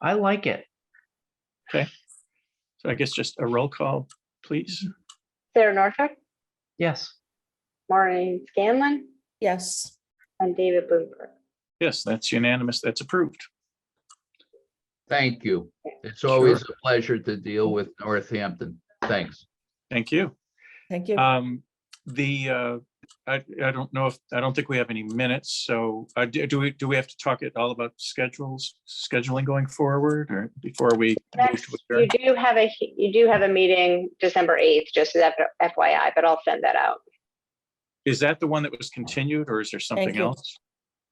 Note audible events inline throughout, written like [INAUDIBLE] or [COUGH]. I like it. So I guess just a roll call, please. Sarah Norfolk, Yes. Maureen Scanlon, Yes. and David Bloomberg. Yes, that's unanimous. That's approved. Thank you. It's always a pleasure to deal with Northampton. Thanks. Thank you. Thank you. Um, the, uh, I, I don't know if, I don't think we have any minutes, so uh, do do we, do we have to talk at all about schedules, scheduling going forward or before we? move Next, to you adjourn? do have a, you do have a meeting December 8th, just as F- FYI, but I'll send that out. Is that the one that was continued or is there something you. else?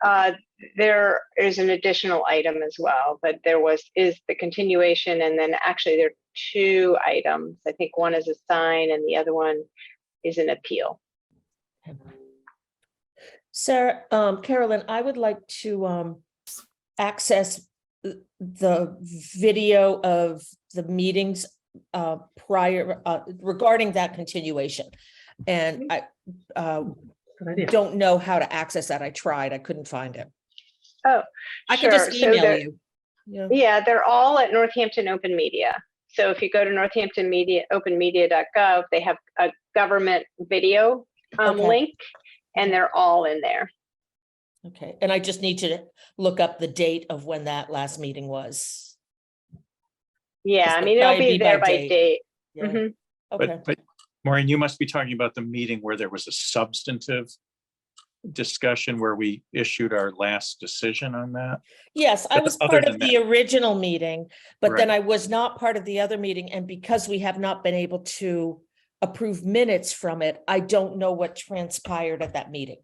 Uh, There is an additional item as well, but there was, is the continuation, and then actually there are two items. I think one is a sign and the other one is an appeal. Sarah, um, Carolyn, I would like to, um, access th- the video of the meetings, uh, prior, uh, regarding that continuation. And I, uh, Good idea. don't know how to access that. I tried. I couldn't find it. Oh, I can just sure. So there- email you. Yeah. Yeah, they're all at Northampton Open Media. So if you go to Northampton Media, openmedia.gov, they have a government video um, Okay. link and they're all in there. Okay, and I just need to look up the date of when that last meeting was. Yeah, Just I the- mean, it'll that'd be be there by by date. date. Yeah. Mhm. Okay, But, but Maureen, you must be talking about the meeting where there was a substantive discussion where we issued our last decision on that. yes, I but was other part than of the original meeting, but Right. then I was not part of the other meeting, and because we have not been able to approve minutes from it, I don't know what transpired at that meeting.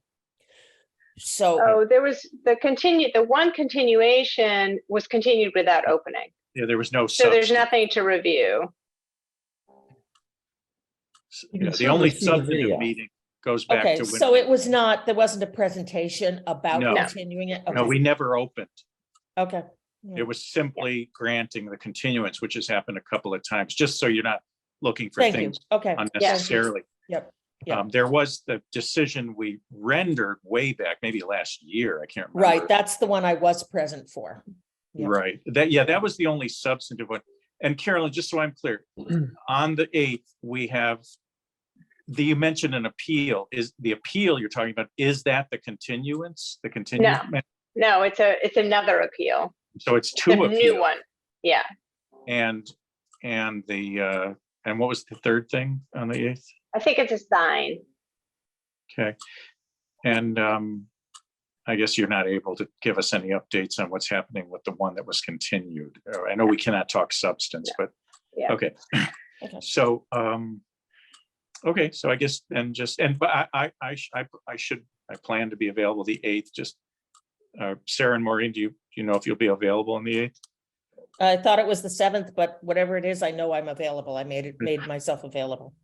So, Oh, there was the continue, the one continuation was continued without opening. Yeah, there was no. So there's substan- nothing to review. You Yeah, can the still only see the video. substantive meeting goes back to. okay, when- so it was not, there wasn't a presentation about No. No. continuing it? No, Okay, Mm. we never opened. Okay. It was simply granting the continuance, which has happened a couple of times, just so you're not looking for Thank you, things okay. unnecessarily. Yep, yep. Um, there was the decision we rendered way back, maybe last year, I can't remember. Right, that's the one I was present for. yeah. Right, that, yeah, that was the only substantive one. And Carolyn, just so I'm [CLEARS THROAT] clear, on the eighth, we have the, you mentioned an appeal. Is the appeal you're talking about, is that the continuance, the continuance? No, it's a, it's another appeal, So it's the two new appeals one. Yeah. and, and the, uh, and what was the third thing on the eighth? I think it's a sign. Okay. And um, I guess you're not able to give us any updates on what's happening with the one that was continued. Uh, I know we cannot talk substance, but, Yeah. okay. Okay. So, um, okay, so I guess, and just, and but I, I, I sh- I, I should, I plan to be available the eighth, just uh, Sarah and Maureen, do you, do you know if you'll be available on the eighth? I thought it was the seventh, but whatever it is, I know I'm available. I made it, made myself available.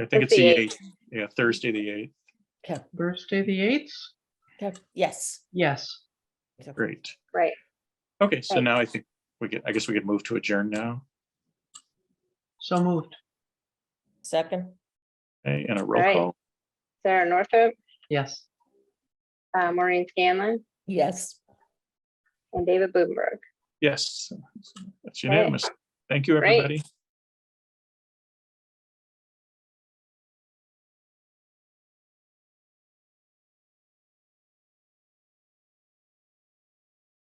I think It's it's the the 8th. eighth, yeah, Thursday, the eighth. Thursday, the eighth? Okay. Yes. Yes. Great. Right. Okay, so Thanks. now I think we could, I guess we could move to adjourn now, So moved. Second, okay, and eh, a roll Right. call. Sarah Norfolk, Yes. uh, Maureen Scanlon, yes. and David Bloomberg. Yes, that's Right. unanimous. Thank you, Great. everybody.